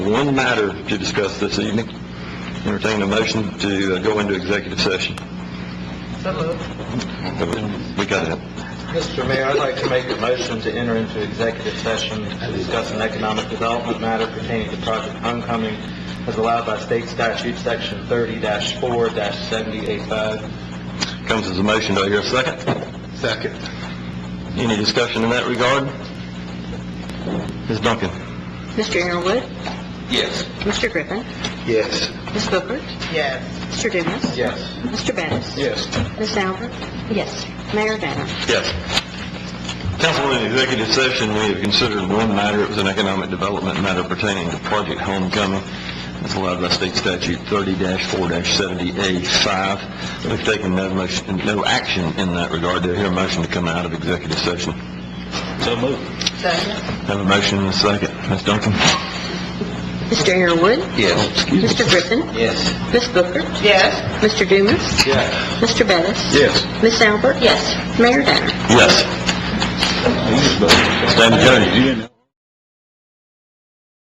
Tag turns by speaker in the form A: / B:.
A: one matter to discuss this evening. Entertain a motion to uh, go into executive session.
B: Hello.
A: We got it.
B: Mr. Mayor, I'd like to make a motion to enter into executive session to discuss an economic development matter pertaining to Project Homecoming as allowed by state statute, section thirty four 785
A: Comes as a motion, do I hear a second?
B: Second.
A: Any discussion in that regard? Ms. Duncan?
C: Mr. Arrowood,
B: Yes.
C: Mr. Griffin,
B: Yes.
C: Ms. Booker,
B: Yes.
C: Mr. Dumas,
B: Yes.
C: Mr. Bettis,
B: Yes.
C: Ms. Albert. Yes. Mayor Danner.
A: Yes. Council, in executive session, we have considered one matter, it was an economic development matter pertaining to Project Homecoming, as allowed by state statute 30-4-70A5. We've taken no motion, no action in that regard, do I hear a motion to come out of executive session?
B: So moved.
A: Have a motion and a second, Ms. Duncan? Oh,
C: Mr. Arrowood,
B: Yes.
C: Mr. Griffin,
B: Yes.
C: Ms. Booker. Yes. Mr. Dumas,
B: Yes.
C: Mr. Bettis.
A: Yes.
C: Ms. Albert. Yes. Mayor Danner.
A: Yes. Stand adjourned.